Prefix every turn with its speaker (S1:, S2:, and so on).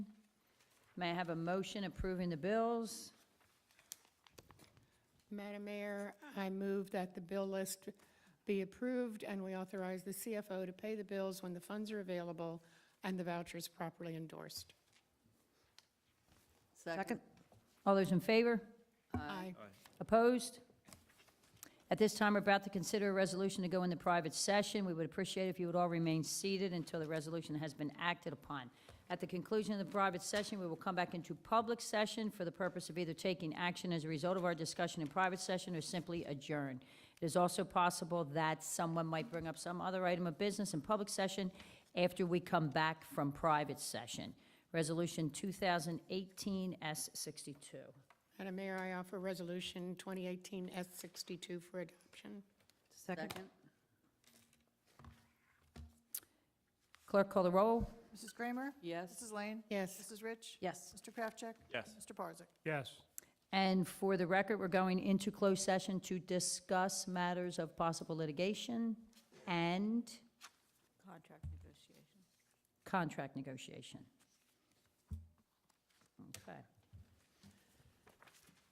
S1: May I have a motion approving the bills?
S2: Madam Mayor, I move that the bill list be approved and we authorize the CFO to pay the bills when the funds are available and the vouchers properly endorsed.
S3: Second.
S1: All those in favor?
S2: Aye.
S1: Opposed? At this time, we're about to consider a resolution to go into private session. We would appreciate if you would all remain seated until the resolution has been acted upon. At the conclusion of the private session, we will come back into public session for the purpose of either taking action as a result of our discussion in private session or simply adjourn. It is also possible that someone might bring up some other item of business in public session after we come back from private session. Resolution 2018 S62.
S2: Madam Mayor, I offer Resolution 2018 S62 for adoption.
S3: Second.
S1: Clerk, call the roll.
S4: Mrs. Kramer?
S3: Yes.
S4: Mrs. Lane?
S2: Yes.
S4: Mrs. Rich?
S1: Yes.
S4: Mr. Kraftcheck?
S5: Yes.
S4: Mr. Parzak?
S5: Yes.
S1: And for the record, we're going into closed session to discuss matters of possible litigation and
S3: Contract negotiation.
S1: contract negotiation. Okay.